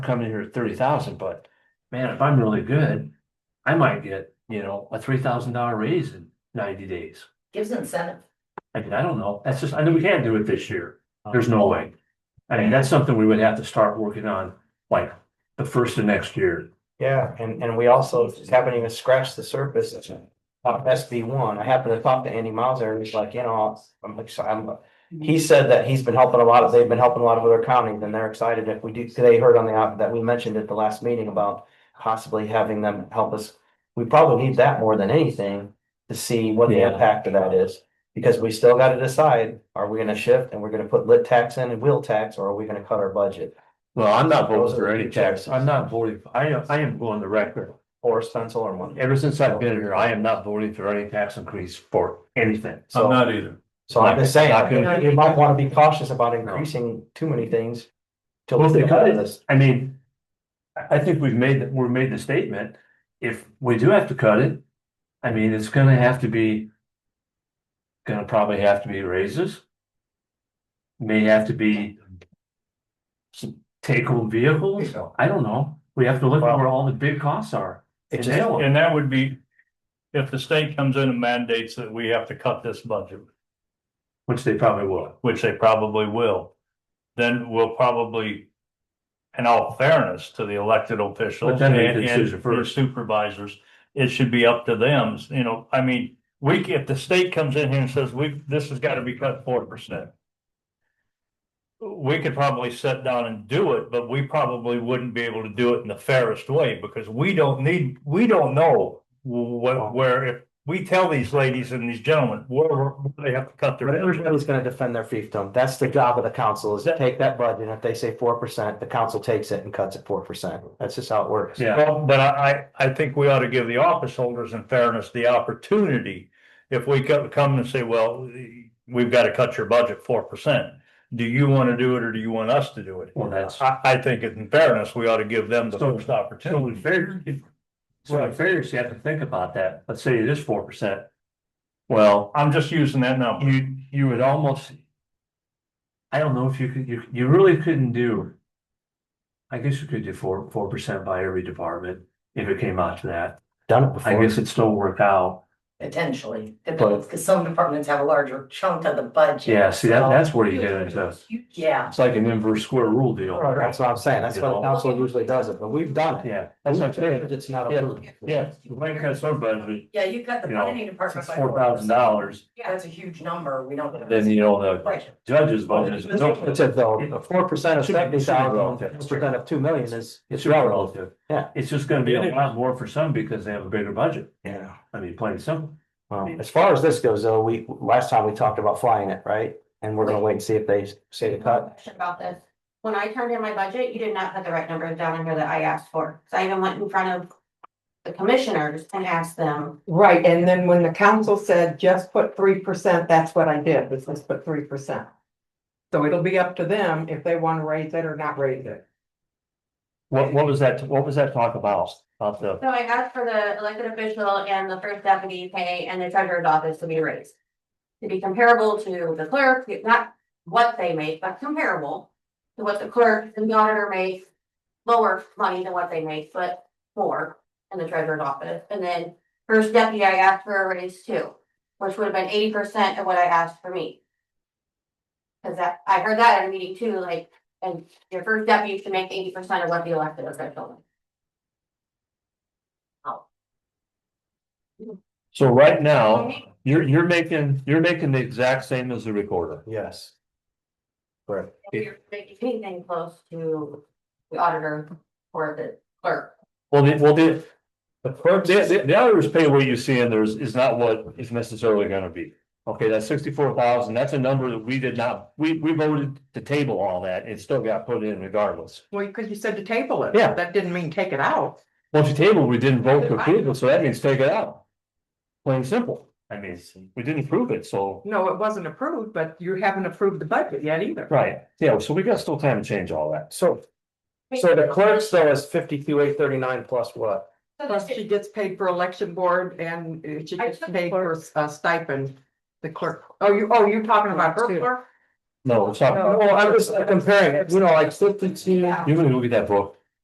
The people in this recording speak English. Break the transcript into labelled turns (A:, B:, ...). A: come in here at thirty thousand, but man, if I'm really good, I might get, you know, a three thousand dollar raise in ninety days.
B: gives incentive.
A: I mean, I don't know. That's just, I know we can't do it this year. There's no way. I mean, that's something we would have to start working on, like, the first of next year.
C: Yeah, and, and we also just haven't even scratched the surface of SB one. I happened to talk to Andy Mauser and he's like, you know, I'm excited. He said that he's been helping a lot of, they've been helping a lot of other counties and they're excited if we do, they heard on the, out- that we mentioned at the last meeting about possibly having them help us. We probably need that more than anything to see what the
A: Yeah.
C: impact of that is. Because we still gotta decide, are we gonna shift and we're gonna put lit tax in and wheel tax, or are we gonna cut our budget?
A: Well, I'm not voting
C: Those are
A: for
C: the
A: any
C: two
A: tax.
C: taxes.
A: I'm not voting. I am, I am going the record.
C: Or stencil or one?
A: Ever since I've been here, I am not voting for any tax increase for anything.
C: So-
D: I'm not either.
C: So I'm just saying,
A: Not
B: gonna-
C: you might wanna be cautious about increasing too many things. Till
A: Well, if
C: we
A: they
C: get out
A: cut
C: of
A: it,
C: this.
A: I mean, I, I think we've made, that we've made the statement, if we do have to cut it, I mean, it's gonna have to be, gonna probably have to be raises. May have to be some take-home vehicles, I don't know, we have to look at where all the big costs are.
C: It
A: And
C: just-
A: nail 'em.
D: And that would be if the state comes in and mandates that we have to cut this budget,
A: Which they probably will,
D: which they probably will. Then we'll probably, in all fairness to the elected
A: But
D: officials
A: then
D: and
A: they can
D: and
A: choose it
D: their
A: first.
D: supervisors, it should be up to them, you know, I mean, we, if the state comes in here and says, we, this has got to be cut forty percent. We could probably sit down and do it, but we probably wouldn't be able to do it in the fairest way because we don't need, we don't know what, where, if we tell these ladies and these gentlemen, where, where they have to cut their.
C: But everybody's gonna defend their fiefdom. That's the job of the council is to take that budget. and If they say four percent, the council takes it and cuts it four percent. That's just how it works.
A: yeah,
D: Well, but I, I, I think we ought to give the office holders in fairness the opportunity. If we co- come and say, well, we've got to cut your budget four percent, do you want to do it or do you want us to do it?
A: well, that's.
D: I, I think in fairness, we ought to give them the
A: So-
D: first
A: So in
D: opportunity.
A: fair, if- so in fairness, you have to think about that, let's say it is four percent. Well,
D: I'm just using that number.
A: you you would almost. I don't know if you could, you you really couldn't do. I guess you could do four four percent by every department if it came out to that.
C: Done it
A: I
C: before.
A: guess it'd still work out.
B: Potentially,
C: But-
B: because some departments have a larger chunk of the budget.
A: Yeah, see, that
B: so-
A: that's where you get into,
B: You- Yeah,
A: it's like an inverse square rule deal.
C: That's what I'm saying. That's what the
A: You know?
C: council usually does it, but we've done it.
A: Yeah, that's what I'm saying.
C: It's not.
A: Yeah.
C: approved.
A: Yeah, you might cut some budget,
B: yeah, you cut the
A: You know,
B: planning department
A: it's
B: by
A: four thousand dollars,
B: Yeah, that's a huge number, we don't.
A: then you know, the
B: Right,
A: judge's budget is.
C: It's a though, four percent of
A: Should be- should be
C: seventy thousand,
A: relative.
C: percent of two million is,
A: It's
C: is relative.
A: relative.
C: Yeah.
A: It's just gonna be a lot more for some because they have a bigger budget.
C: Yeah.
A: I mean, plain and simple.
C: Well, Um, as far as this goes, though, we, last time we talked about flying it, right? And we're gonna wait and see if they say to cut.
E: Question about this. When I turned in my budget, you did not put the right numbers down in here that I asked for. So I even went in front of the commissioners and asked them.
F: Right, and then when the council said just put three percent, that's what I did, was just put three percent. So it'll be up to them if they want to raise it or not raise it.
A: What, what was that, what was that talk about, about the?
E: So I asked for the elected official and the first deputy pay and the treasurer's office to be raised. To be comparable to the clerk, not what they make, but comparable to what the clerk and the auditor make. Lower money than what they make, but more in the treasurer's office. And then first deputy, I asked for a raise too, which would have been eighty percent of what I asked for me. Cause that, I heard that at a meeting too, like, and your first deputy should make eighty percent of what the elected official makes.
A: So right now, you're, you're making, you're making the exact same as the recorder.
C: Yes. Right.
E: If you're making anything close to the auditor or the clerk.
A: Well, the, well, the. The, the, the auditor's pay what you see in there is, is not what is necessarily gonna be. Okay, that's sixty-four thousand, that's a number that we did not, we, we voted to table all that, it still got put in regardless.
F: Well, because you said to table it.
A: Yeah.
F: That didn't mean take it out.
A: Once you table, we didn't vote to approve it, so that means take it out. Plain and simple, I mean, we didn't approve it, so,
F: No, it wasn't approved, but you haven't approved the budget yet either.
A: right, yeah, so we got still time to change all that.
C: So, so the clerk's though is fifty-two, eight thirty-nine plus what?
E: So
F: Plus, she
E: the-
F: gets paid for election board and uh, she
E: I
F: gets
E: took
F: paid for a stipend, the clerk. Oh, you, oh, you're talking about her clerk?
A: No, it's not,
C: Well, I'm just comparing it, you know, like fifty-two,
A: you're gonna go get that book,